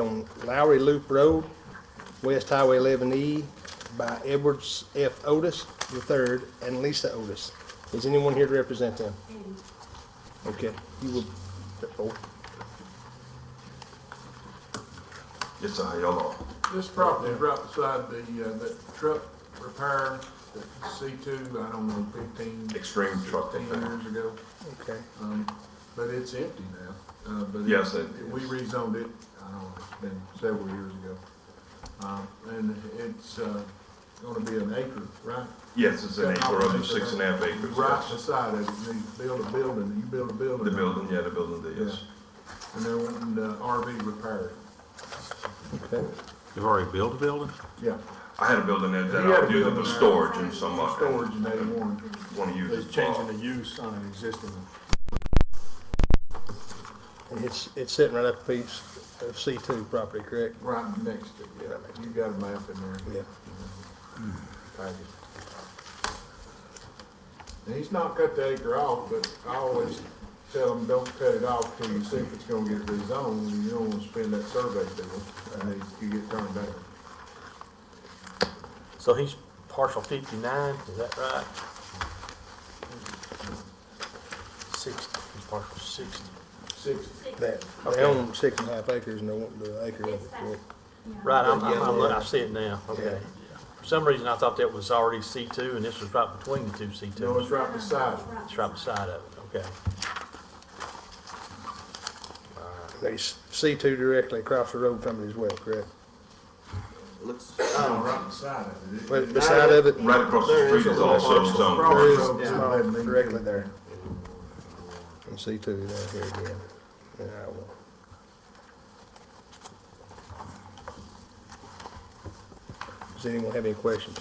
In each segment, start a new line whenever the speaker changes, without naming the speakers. on Lowry Loop Road, West Highway 11E by Edwards F. Otis III and Lisa Otis. Is anyone here to represent them? Okay, you will, oh,
It's a yellow.
This property is right beside the, uh, that truck repair, that C two, I don't know, fifteen.
Extreme truck
16
repair.
Years ago,
okay.
um, but it's empty now, uh, but. it-
Yes, it-
We rezoned it, I don't know, it's been several years ago. Um, and it's, uh, gonna be an acre, right?
Yes, it's an acre, up to six and a half acres.
Right
yes.
beside it, you need to build a building, you build a building.
The building, yeah, the building there, yes.
And they're wanting the RV repaired,
Okay.
You've already built a building?
yeah.
I had a building there that
You had
I
a
was using
building
for
there.
storage and some, uh,
Storage and they want.
want to use
They're
it
changing
for.
the use on an existing one.
And it's, it's sitting right up a piece of C2 property, correct?
Right next to it, yeah. You got a map in there.
Yeah.
Package. And he's not cut the acre off, but I always tell him, don't cut it off till you see if it's gonna get rezoned. and You don't wanna spend that survey bill, and then you get turned back.
So he's partial fifty-nine, is that right? Sixty, he's partial sixty.
Six,
That, they own six and a half acres and they want the acre of it, correct?
Right, I'm, I'm, I'm look- I see it now, okay. For some reason, I thought that was already C two, and this was right between the two C
no,
twos.
it's right beside it.
It's right beside of it, okay.
They s- C2 directly across the road from it as well, correct?
No, Oh, right beside it. it.
Right beside of it?
Right across the street is also zoned.
There is
Crossroads,
a
yeah.
small directly there. And C two down here again. Yeah, I will. Does anyone have any questions?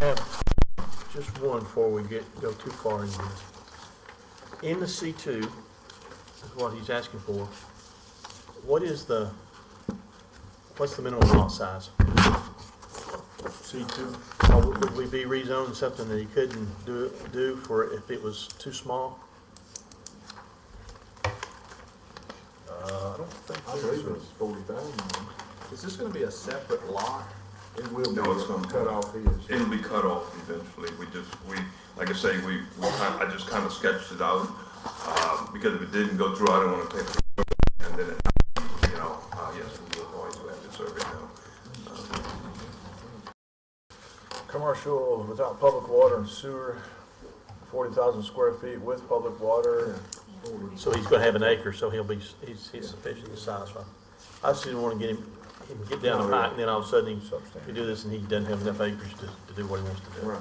have just one before we get, go too far in this. In the C two, is what he's asking for, what is the, what's the minimum lot size? C two. Would we be rezoning something that he couldn't do, do for if it was too small?
I don't
I
think
believe
there
it's forty thousand.
is. Is this gonna be a separate lot?
It will be.
No, it's gonna-
Cut off his.
It'll be cut off eventually. We just, we, like I say, we, we kind, I just kind of sketched it out. Uh, because if it didn't go through, I didn't want to take, it. and then, it, you know, uh, yes, we will always have to survey now. Uh,
Commercial without public water and sewer, forty thousand square feet with public water.
So he's gonna have an acre, so he'll be, he's, he's sufficiently satisfied. I just didn't wanna get him, him get down the height, and then all of a sudden, he, he do this, and he doesn't have enough acres to, to do what he wants to do.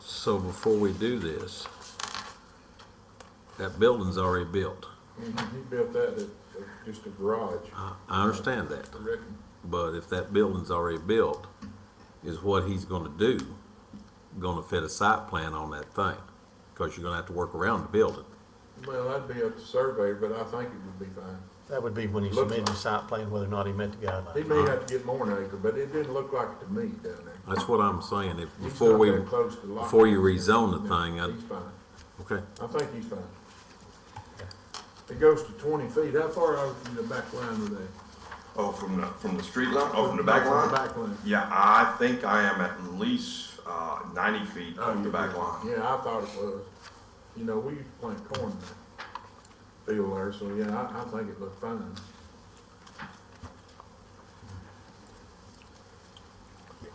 So before we do this, that building's already built.
Mhm, He built that at, at just a garage,
I, I understand that,
written.
but if that building's already built, is what he's gonna do, gonna fit a site plan on that thing? Cause you're gonna have to work around the building.
Well, that'd be up to surveyor, but I think it would be fine.
That would be when he
Looks
submitted the
like-
site plan, whether or not he met the
He
guidelines.
may
Uh-huh.
have to get more than acre, but it didn't look like it to me down there.
That's what I'm saying, if,
He's
before
not
we,
that close to lock.
before you rezone the
No,
thing,
He's
I,
fine.
okay.
I think he's fine. It goes to twenty feet. How far out from the back line are they?
Oh, from the, from the street line, oh, from the back line?
From the back line.
Yeah, I think I am at least uh, 90
Oh,
feet off the back line.
Yeah, I thought it was. You know, we used to plant corn in that field there, so yeah, I, I think it looked fine.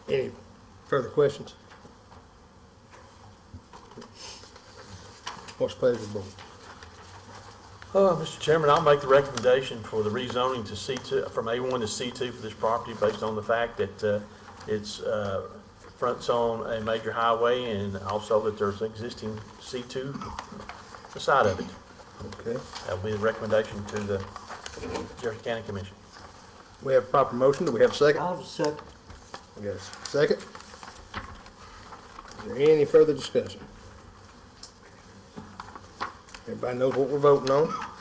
Any further questions? What's pleasure, of the board?
Uh, Mr. Chairman, I'll make the recommendation for the rezoning to C two, from A one to C two for this property based on the fact that, uh, it's, uh, fronts on a major highway and also that there's an existing C two beside of it.
Okay,
That would be the uh, recommendation to the Jefferson County Commission.
we have proper motion, do we have a second?
I'll second.
We got a second? Is there any further discussion? Everybody knows what we're voting on?